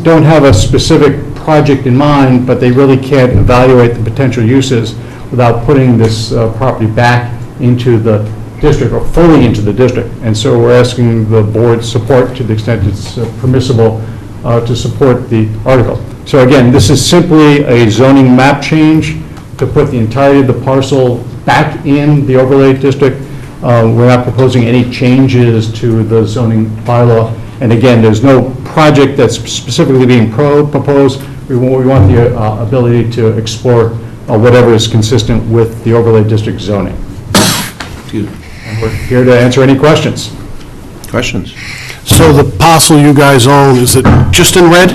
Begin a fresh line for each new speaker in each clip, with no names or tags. don't have a specific project in mind, but they really can't evaluate the potential uses without putting this uh, property back into the district, or fully into the district. And so we're asking the board's support, to the extent it's uh, permissible, uh, to support the article. So again, this is simply a zoning map change to put the entirety of the parcel back in the overlay district. Uh, We're not proposing any changes to the zoning bylaw. And again, there's no project that's specifically being pro- proposed. We want we want the uh, ability to explore uh, whatever is consistent with the overlay district zoning.
Excuse me.
We're here to answer any questions.
Questions?
So the parcel you guys own, is it just in red,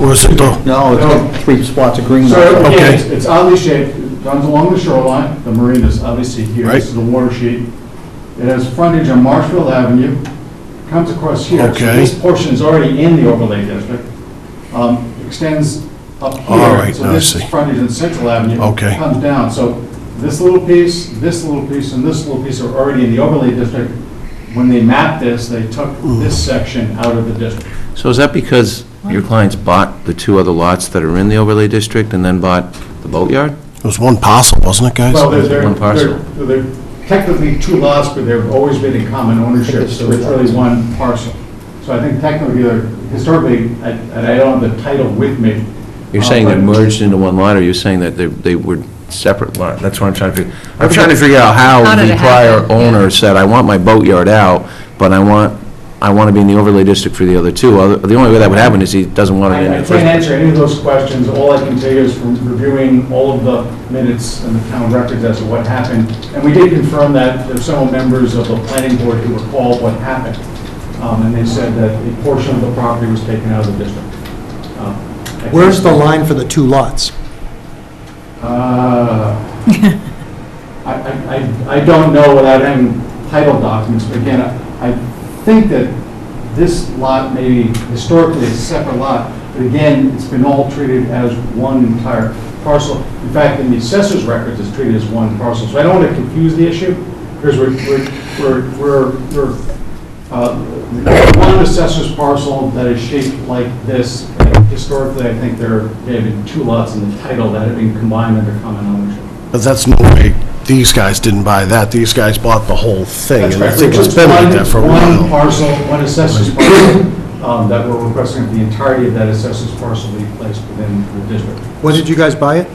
or is it the...
No, it's got three spots of green. mark.
again, Okay. it's-
oddly shaped, it runs along the shoreline. The marina is obviously here.
This is
the water sheet. It has frontage on Marshfield Avenue, comes across here. So
Okay.
This portion is already in the overlay district, um, extends up here.
All right, now I
So this
see.
is frontage on Central Avenue.
Okay.
Comes down, so this little piece, this little piece, and this little piece are already in the overlay district. When they mapped this, they took
Hmm.
this section out of the district.
So is that because your clients bought the two other lots that are in the overlay district and then bought the boatyard?
It was one parcel, wasn't it, guys?
Well, they're, they're-
one parcel.
they're, they're technically two lots, but they've always been in common ownership, so it's really one parcel. So I think technically, they're- historically, I- and I don't have the title with me.
You're
uh,
saying they're
but-
merged into one lot, or you're saying that they they were separate lot? That's what I'm trying to figure, I'm trying to figure out how
How did
the
it
prior
happen? Yeah.
owner said, I want my boatyard out, but I want, I want to be in the overlay district for the other two. Other- The only way that would happen is he doesn't want it in
I I can't
the first.
answer any of those questions, all I can tell you is from reviewing all of the minutes and the town records as to what happened, and we did confirm that there are several members of the planning board who recall what happened, Um, and they said that a portion of the property was taken out of the district. Um, I think-
Where's the line for the two lots?
Uh, I, I, I- I don't know without having title documents, but again, I think that this lot may be historically a separate lot, but again, it's been all treated as one entire parcel. In fact, in the assessor's records, it's treated as one parcel, so I don't want to confuse the issue, because we're, we're, we're, we're- we're uh, One assessor's parcel that is shaped like this, historically, I think there may have been two lots in the title that have been combined under common ownership.
But that's no way, these guys didn't buy that, these guys bought the whole thing, and I think it's been like that for a
One
while.
parcel, one assessor's parcel, um, that we're requesting the entirety of that assessor's parcel be placed within the district.
When did you guys buy it?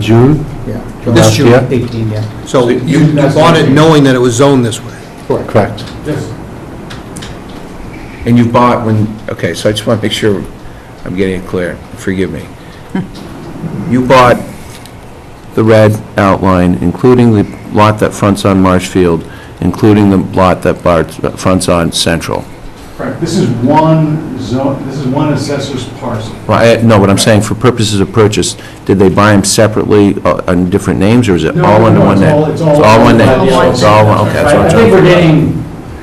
June?
Yeah. This June? 18, yeah. So you you bought it knowing that it was zoned this way?
Correct.
Yes.
And you bought when, okay, so I just want to make sure I'm getting it clear, forgive me. You bought the red outline, including the lot that fronts on Marshfield, including the lot that bar- fronts on Central.
Correct. This is one zone, this is one assessor's parcel.
Well, I- No, what I'm saying, for purposes of purchase, did they buy them separately uh, on different names, or is it
No,
all
no,
under
no,
one
it's
name?
all- it's all
one
under
name?
one
So
name.
It's all, one- okay, that's what
I
I'm
I
trying
think
to...
we're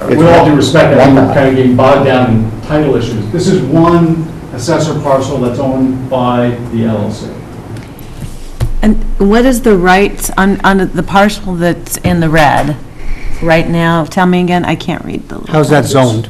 getting, with all due respect, I think we're kind of getting bogged down in title issues. This is one assessor parcel that's owned by the LLC.
And what is the rights on, on the parcel that's in the red right now? Tell me again, I can't read the.
How's that zoned?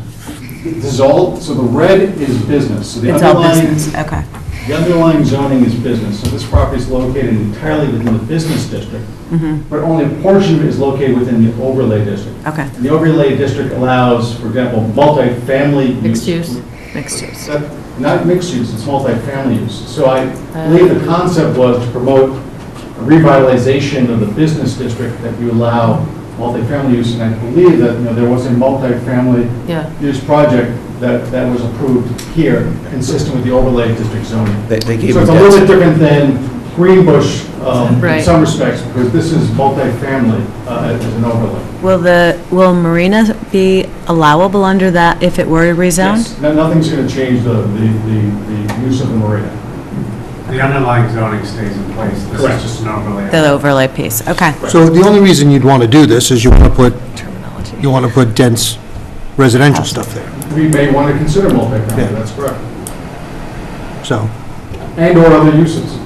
This is all, so the red is business. So the
It's all
underlying-
business, okay.
The underlying zoning is business, so this property is located entirely within the business district,
Mm-hmm.
but only a portion of it is located within the overlay district.
Okay.
And the overlay district allows, for example, multifamily use.
mixed use.
That- Not mixed use, it's multifamily use. So I believe the concept was to promote a revitalization of the business district that you allow multifamily use, and I believe that, you know, there was a multifamily
Yeah.
use project that, that was approved here, consistent with the overlay district zoning.
They- They gave
So
you
it's a little
that.
bit different than Greenbush um, in
Right.
some respects, because this is multifamily uh, as an overlay.
Will the, will Marina be allowable under that if it were rezoned?
Yes, no- Nothing's going to change the, the, the the use of the marina.
The underlying zoning stays in place, this
Correct.
is just an overlay.
The overlay piece, okay.
So the only reason you'd want to do this is you want to put, you want to put dense residential stuff there,
we may want to consider multifamily,
Yeah.
that's correct,
so.
and/or other uses.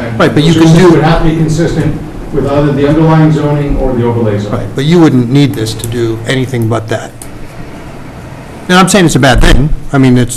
And
Right, but you
those
can
uses
do-
would have to be consistent with either the underlying zoning or the overlay zoning.
Right, but you wouldn't need this to do anything but that. And I'm saying it's a bad thing, I mean, it's,